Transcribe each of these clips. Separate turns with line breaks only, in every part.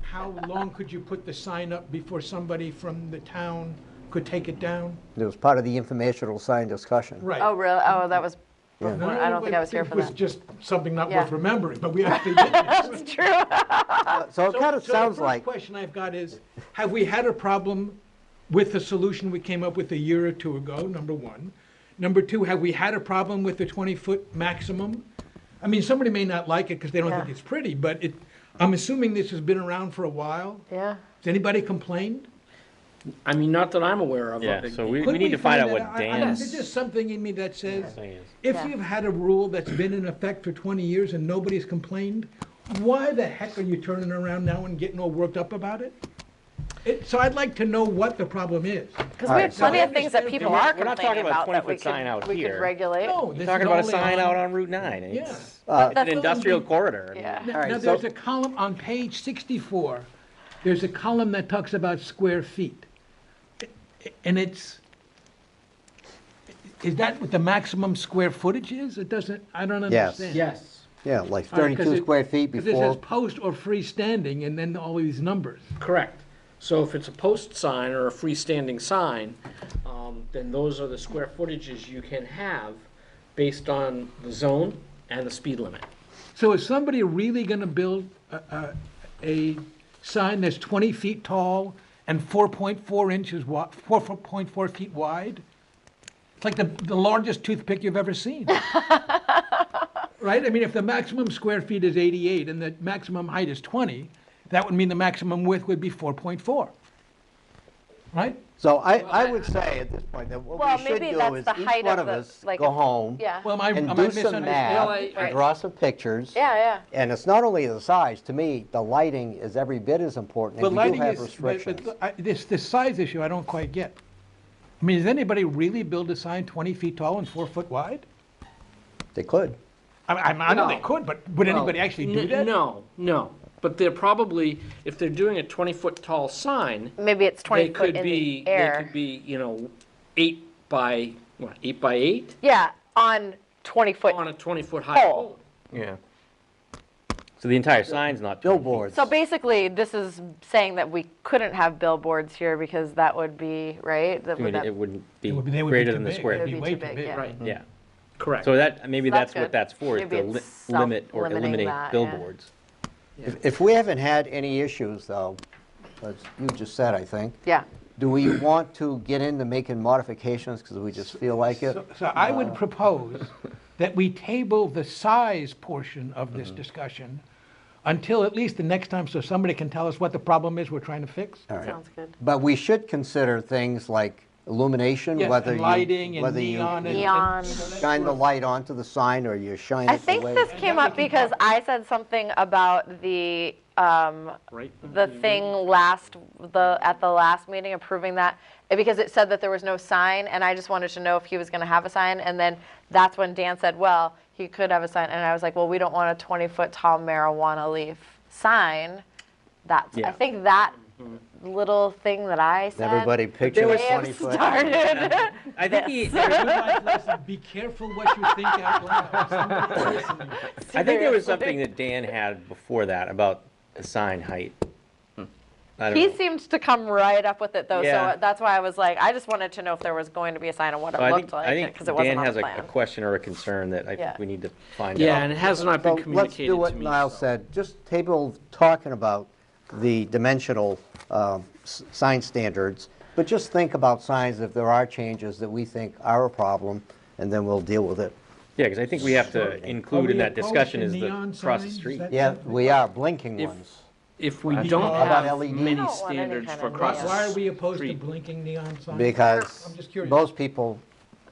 how long could you put the sign up before somebody from the town could take it down?
It was part of the informational sign discussion.
Right.
Oh, really? Oh, that was,
And
well, I don't think I was here for
It was
that.
just something not
Yeah.
worth remembering, but we actually did this.
It's true.
So
So-
it kind of
so
sounds
The first
like,
question I've got is, have we had a problem with the solution we came up with a year or two ago, number one? Number two, have we had a problem with the 20-foot maximum? I mean, somebody may not like it because they don't think
Yeah.
it's pretty, but it, I'm assuming this has been around for a while.
Yeah.
Has anybody complained?
I mean, not that I'm aware of.
Yeah,
but-
so we,
Could
we need to find out
that
what
I- I mean,
Dan's
There's just something in me that says,
thing is.
if
Yeah.
you've had a rule that's been in effect for 20 years and nobody's complained, why the heck are you turning around now and getting all worked up about it? It, so I'd like to know what the problem is.
Because
All right,
we have
so-
plenty of things that
And
people
we're-
are
we're
complaining
not talking about
about that we
20-foot sign out
could, we could
here.
regulate.
No, this
We're
is
talking about a
only
sign
on-
out on Route 9.
Yeah.
It's
Uh,
But
an
that's what we-
industrial corridor.
Yeah.
Now,
All right,
now
so-
there's a column on page 64, there's a column that talks about square feet. And it's, is that what the maximum square footage is? It doesn't, I don't
Yes.
understand.
Yes,
yeah, like
All right, 'cause
32
it-
square feet
'cause it says
before,
post or freestanding and then all these numbers.
correct. So if it's a post sign or a freestanding sign, um, then those are the square footages you can have based on the zone and the speed limit.
So is somebody really gonna build a, a, a sign that's twenty feet tall and four point four inches wi, four, four point four feet wide? It's like the, the largest toothpick you've ever seen. Right? I mean, if the maximum square feet is eighty-eight and the maximum height is twenty, that would mean the maximum width would be four point four. Right?
so I, I would say at this point that what
Well,
we should
maybe
do
that's
is
the
each
height
one
of
of
the-
us
like
go
a-
home
Yeah.
Well, am I, am
and
I
do some
misunderstanding?
math,
misunderstanding?
and draw some pictures.
Yeah, yeah.
And it's not only the size, to me, the lighting is every bit as important,
But
and we do
lighting
have
is, but-
restrictions.
but I- this, this size issue, I don't quite get. I mean, does anybody really build a sign 20 feet tall and four foot wide?
They could.
I, I I know they
No.
could, but would anybody
Well,
actually do
n-
that?
No, no. But they're probably, if they're doing a 20-foot tall sign,
Maybe it's 20
they
foot
could
in
be,
the
they could
air.
be, you know, eight by, what, eight by eight
Yeah, on 20
on
foot.
a 20-foot high
Pole.
pole.
Yeah. So the entire sign's not. 20 feet.
Billboards.
So basically, this is saying that we couldn't have billboards here because that would be, right? That
I
would
mean,
that-
it wouldn't be
It would be- they would be
greater
too
than the
big.
square
It'd
They'd
feet.
be
way
too big, yeah.
Right,
Yeah.
correct.
So that, maybe
So that's
that's
good.
what that's for, is
Maybe
to li-
it's
limit or
self-limiting
eliminate
that, yeah.
billboards.
If- If we haven't had any issues, though, as you just said, I think,
Yeah.
do we want to get into making modifications because we just feel like it?
So so I would propose that we table the size portion of
Mm-hmm.
this discussion until at least the next time, so somebody can tell us what the problem is we're trying to fix.
All right.
Sounds good.
But we should consider things like illumination,
Yes,
whether
and
you...
lighting and
whether you
neon and.
Neon.
Shine the light onto the sign or you shine
I
it
think
away.
this came up because I said something about the, um,
Right?
the
Mm-hmm.
thing last, the, at the last meeting approving that, eh, because it said that there was no sign, and I just wanted to know if he was gonna have a sign, and then that's when Dan said, well, he could have a sign, and I was like, well, we don't want a twenty-foot tall marijuana leaf sign. That's, I
Yeah. Mm-hmm.
think that little thing that I said.
Everybody picture
may
a
have
20-foot...
started.
I think he,
Your life lesson, Be careful what you think out loud. Somebody's listening.
I think there
Seriously.
was something that Dan had before that about the sign height. I don't
Hmm. He
know.
seemed to come right up with it though,
Yeah.
so that's why I was like, I just wanted to know if there was going to be a sign and what it
So I
looked
think, I
like,
think
because it wasn't
Dan
on the
has a- a
plan.
question or a concern that I
Yeah.
think we need to find out.
Yeah, and it has not
So
been
let's
communicated
do
to me.
what Niall
so-
said, just table talking about the dimensional um, s- sign standards, but just think about signs if there are changes that we think are a problem, and then we'll deal with it.
Yeah, because I think we have to include in that discussion
Are Oh, we opposed
is
to neon
the across the
signs?
street.
Is that
Yeah,
something-
we are blinking
If-
ones.
If we
How
don't
about
have
LED?
I don't
many
want any
standards
kind
for
of
across
Why are we
the
opposed to
street,
blinking neon signs?
Because
I'm just curious.
most people,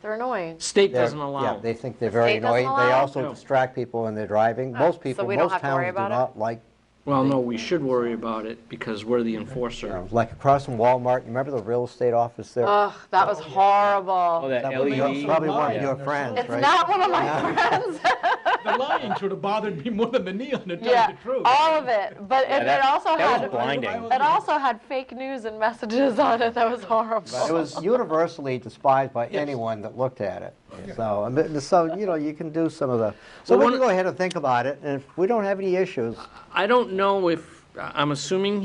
They're annoying.
state
they're-
doesn't
yeah,
allow.
they
them.
think they're very
State doesn't
annoying. They
allow 'em?
also
No.
distract people when they're driving. Most people,
we don't
most
have to worry
towns do
about it?
not like,
Well, no, we should worry about it because we're the enforcer.
like across from Walmart, you remember the real estate office there?
Ugh, that was
Oh,
horrible.
that
That was your-
LED.
Probably one
Yeah.
of your friends,
It's
right?
not one of my friends,
The lying should have bothered me more than the neon, to tell
yeah,
you the truth.
all of it, but it it
that-
also
That was
had,
blinding.
it also had fake news and messages on it, that was
It
horrible.
was universally despised by anyone that looked at it. So, I mean, so, you know, you can do some of the, so we
Well,
can
one-
go ahead and think about it, and if we don't have any issues,
I don't know if, I- I'm assuming